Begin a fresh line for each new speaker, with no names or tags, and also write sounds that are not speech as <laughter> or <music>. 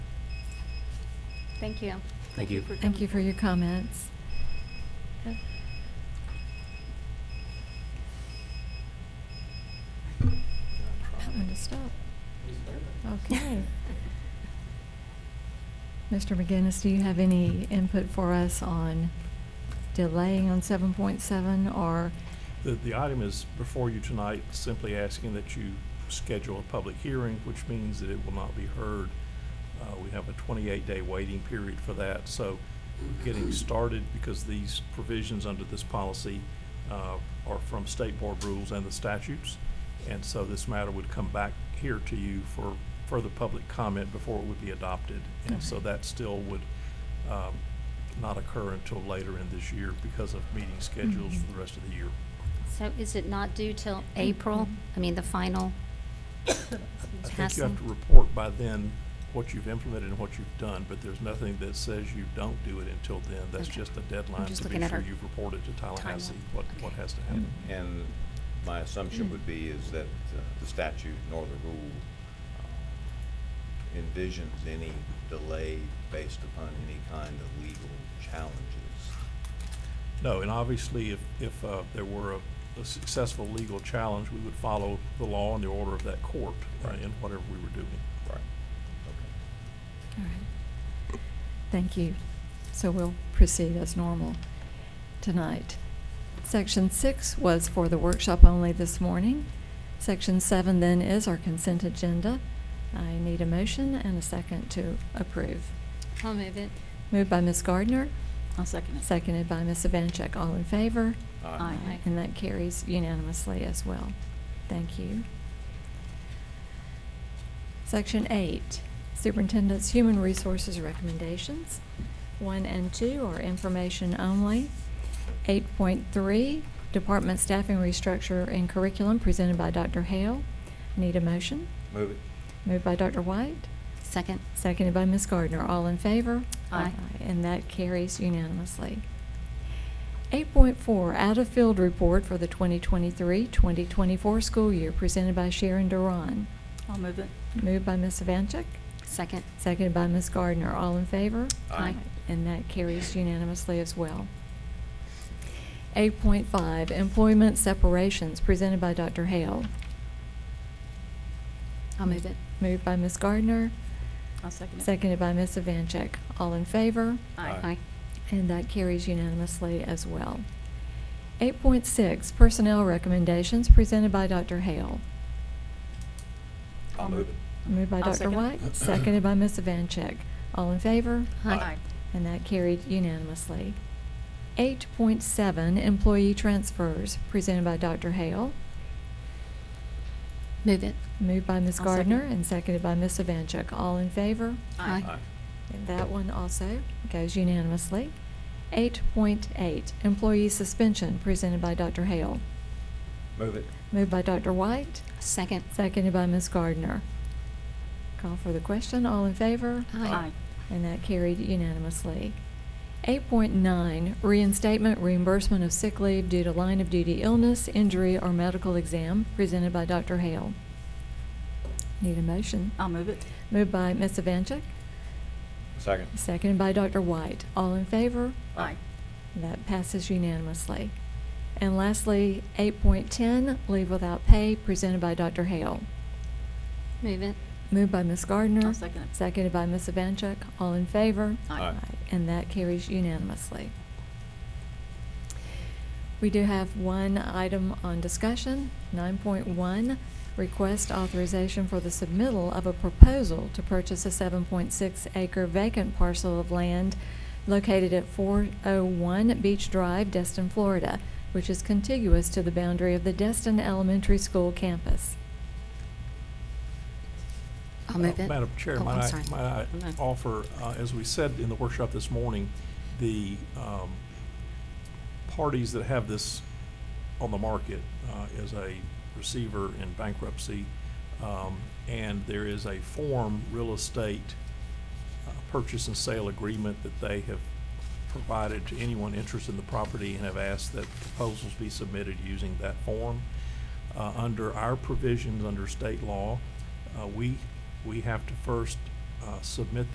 Thank you.
Thank you.
for
Thank
coming.
you for your comments.
嗯
That one to stop. Okay. Mr. McGinnis, do you have any input for us on delaying on 7.7 or,
The, the item is before you tonight, simply asking that you schedule a public hearing, which means that it will not be heard. Uh, we have a twenty-eight day waiting period for that, so getting started because these provisions under this policy, uh, are from state board rules and the statutes. And so this matter would come back here to you for further public comment before it would be adopted. And so
Okay.
that still would, um, not occur until later in this year because of meeting schedules for the rest of the year.
So is it not due till April? I mean, the final
<coughs> I think you have to
passing?
report by then what you've implemented and what you've done, but there's nothing that says you don't do it until then. That's
Okay.
just a
I'm
deadline
just
to be
looking at
sure
our
you've reported to Tallahassee
timeline.
what,
Okay.
what has to happen.
And my assumption would be is that uh, the statute nor the rule uh, envisions any delay based upon any kind of legal challenges.
No, and obviously, if, if uh, there were a a successful legal challenge, we would follow the law and the order of that court uh,
Right.
in whatever we were doing.
Right. Okay.
all right. Thank you. So we'll proceed as normal tonight. Section six was for the workshop only this morning. Section seven then is our consent agenda. I need a motion and a second to approve.
I'll move it.
Moved by Ms. Gardner,
I'll second it.
seconded by Ms. Evancheck. All in favor?
Aye.
Aye.
And that carries unanimously as well. Thank you. Section eight, Superintendent's Human Resources Recommendations. One and two are information only. Eight point three, Department Staffing Restructure and Curriculum presented by Dr. Hale. Need a motion?
Move it.
Moved by Dr. White,
Second.
seconded by Ms. Gardner. All in favor?
Aye.
And that carries unanimously. 8.4, out-of-field report for the 2023-2024 school year, presented by Sharon Duran.
I'll move it.
Moved by Ms. Vancheck,
Second.
seconded by Ms. Gardner. All in favor?
Aye.
And that carries unanimously as well. 8.5, employment separations, presented by Dr. Hale.
I'll move it.
Moved by Ms. Gardner,
I'll second it.
seconded by Ms. Vancheck. All in favor?
Aye.
Aye.
And that carries unanimously as well. 8.6, Personnel Recommendations, presented by Dr. Hale.
I'll move it.
Moved by
I'll
Dr.
second.
White, seconded by Ms. Vancheck. All in favor?
Aye.
And that carried unanimously. 8.7, Employee Transfers, presented by Dr. Hale.
Move it.
Moved by Ms.
I'll second.
Gardner and seconded by Ms. Vancheck. All in favor?
Aye.
Aye.
And that one also goes unanimously. 8.8, Employee Suspension, presented by Dr. Hale.
Move it.
Moved by Dr. White,
Second.
seconded by Ms. Gardner. Call for the question, all in favor?
Aye.
And that carried unanimously. 8.9, reinstatement reimbursement of sick leave due to line of duty illness, injury, or medical exam, presented by Dr. Hale. Need a motion?
I'll move it.
Moved by Ms. Evancheck,
Second.
seconded by Dr. White. All in favor?
Aye.
That passes unanimously. And lastly, 8.10, leave without pay, presented by Dr. Hale.
Move it.
Moved by Ms. Gardner.
I'll second it.
Seconded by Ms. Evancheck. All in favor?
Aye.
Aye.
And that carries unanimously. We do have one item on discussion, 9.1, request authorization for the submittal of a proposal to purchase a 7.6 acre vacant parcel of land located at 401 Beach Drive, Destin, Florida, which is contiguous to the boundary of the Destin Elementary School campus.
I'll move
Uh,
it.
Madam Chair,
Oh, I'm
might
sorry.
I, might
I'm
I
not-
offer, uh, as we said in the workshop this morning, the um, parties that have this on the market uh, is a receiver in bankruptcy, um, and there is a form real estate uh, purchase and sale agreement that they have provided to anyone interested in the property and have asked that proposals be submitted using that form. Uh, Under our provisions, under state law, uh, we, we have to first uh, submit